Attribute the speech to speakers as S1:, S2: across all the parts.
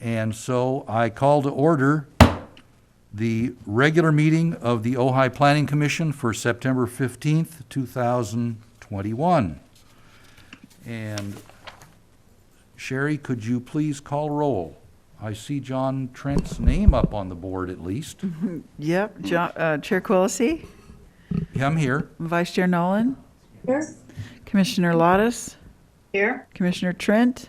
S1: And so I call to order the regular meeting of the Ojai Planning Commission for September 15th, 2021. And Sherry, could you please call roll? I see John Trent's name up on the board at least.
S2: Yep, Jo- uh, Chair Quilisi,
S1: I'm here.
S2: Vice Chair Nolan,
S3: Here.
S2: Commissioner Lottis,
S3: Here.
S2: Commissioner Trent.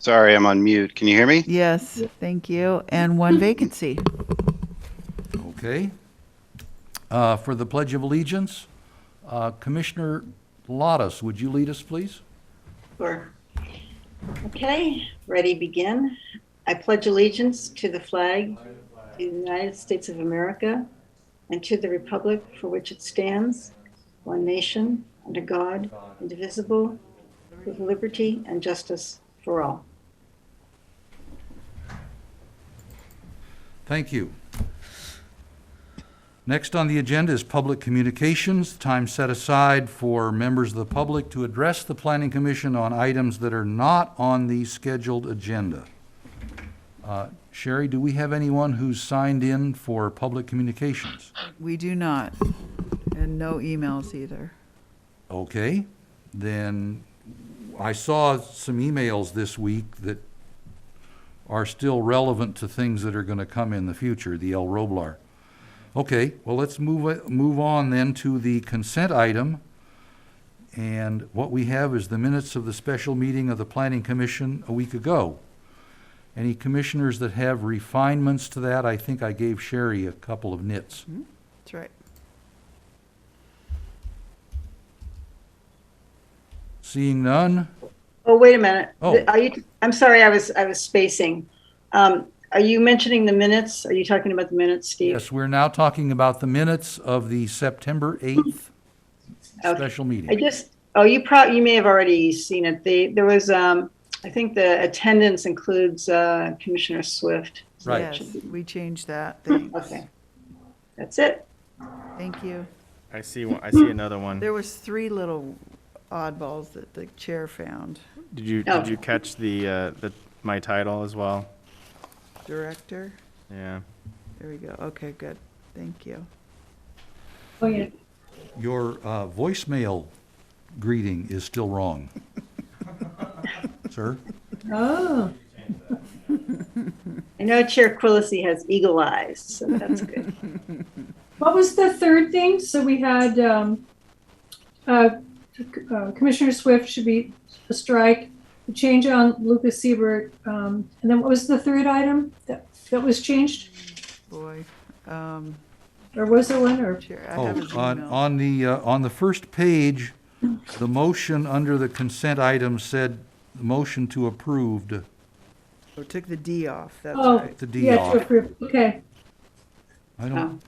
S4: Sorry, I'm on mute. Can you hear me?
S2: Yes, thank you, and one vacancy.
S1: Okay. Uh, For the Pledge of Allegiance, uh, Commissioner Lottis, would you lead us, please?
S3: Sure. Okay, ready, begin. I pledge allegiance to the flag, to the United States of America, and to the republic for which it stands, one nation, under God, indivisible, with liberty and justice for all.
S1: Thank you. Next on the agenda is public communications, time set aside for members of the public to address the Planning Commission on items that are not on the scheduled agenda. Uh, Sherry, do we have anyone who's signed in for public communications?
S2: We do not, and no emails either.
S1: Okay, then, I saw some emails this week that are still relevant to things that are gonna come in the future, the El Roblar. Okay, well, let's move, it- move on then to the consent item. And what we have is the minutes of the special meeting of the Planning Commission a week ago. Any commissioners that have refinements to that, I think I gave Sherry a couple of nits.
S2: That's right.
S1: Seeing none,
S3: Oh, wait a minute.
S1: Oh.
S3: Are you, I'm sorry, I was, I was spacing. Um, Are you mentioning the minutes? Are you talking about the minutes, Steve?
S1: Yes, we're now talking about the minutes of the September 8th
S3: Okay.
S1: special
S3: I
S1: meeting.
S3: just, oh, you probably, you may have already seen it. They, there was, um, I think the attendance includes, uh, Commissioner Swift. So that
S1: Right.
S2: Yes,
S3: should be-
S2: we changed that, thanks.
S3: Okay. That's it.
S2: Thank you.
S5: I see one. I see another one.
S2: There was three little oddballs that the chair found.
S5: Did you
S3: Oh.
S5: did you catch the uh, the my title as well?
S2: Director,
S5: Yeah.
S2: there we go, okay, good, thank you.
S3: Oh, yeah.
S1: Your uh, voicemail greeting is still wrong. Sir?
S6: Oh,
S3: I know Chair Quillisi has eagle eyes, so that's good.
S6: What was the third thing? So we had, um, uh, uh, Commissioner Swift should be a strike, the change on Lucas Siebert, um, and then what was the third item that, that was changed?
S2: Boy, um,
S6: Or was there one, or,
S2: Chair, I
S1: Oh,
S2: have his
S1: on,
S2: email.
S1: on the, uh, on the first page, the motion under the consent item said, motion to approved,
S2: Oh, Took the D off, that's
S6: Oh.
S2: right.
S1: the D
S6: yeah, to
S1: off.
S6: approve, okay.
S1: I don't,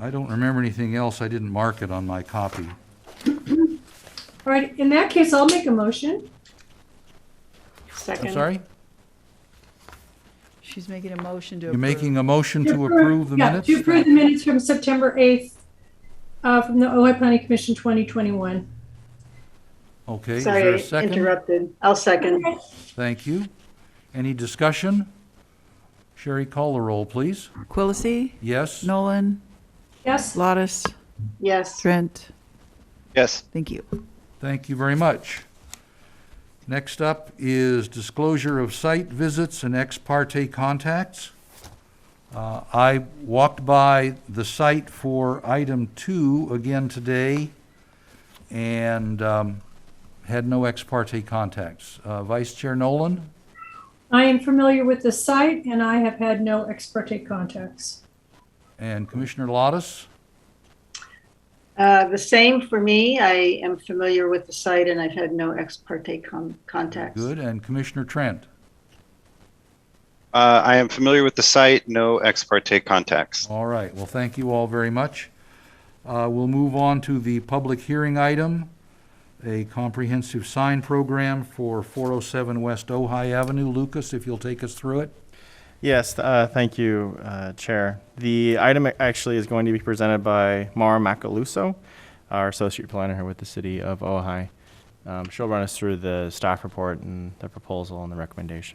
S1: I don't remember anything else. I didn't mark it on my copy.
S6: All right, in that case, I'll make a motion.
S3: Second.
S1: I'm sorry?
S2: She's making a motion to
S1: You're
S2: approve.
S1: making a motion to approve the
S6: yeah,
S1: minutes?
S6: To approve the minutes from September eighth, uh, from the Ojai Planning Commission twenty twenty-one.
S1: Okay, is there a
S3: Sorry,
S1: second?
S3: interrupted. I'll second.
S1: Thank you. Any discussion? Sherry, call the roll, please.
S2: Quilisi,
S1: Yes?
S2: Nolan,
S6: Yes,
S2: Lottis,
S3: Yes.
S2: Trent,
S4: Yes.
S2: thank you.
S1: Thank you very much. Next up is disclosure of site visits and ex parte contacts. Uh, I walked by the site for item two again today and um, had no ex parte contacts. Uh, Vice Chair Nolan?
S6: I am familiar with the site and I have had no ex parte contacts.
S1: And Commissioner Lottis?
S3: Uh, The same for me. I am familiar with the site and I've had no ex parte con- contacts.
S1: Good. And Commissioner Trent?
S4: Uh, I am familiar with the site. No ex parte contacts.
S1: All right, well, thank you all very much. Uh, We'll move on to the public hearing item, a comprehensive sign program for 407 West Ojai Avenue. Lucas, if you'll take us through it.
S5: Yes. Uh, thank you, uh, Chair. The item actually is going to be presented by Mara Macaluso, our associate planner here with the City of Ojai. Um, she'll run us through the staff report and the proposal and the recommendation.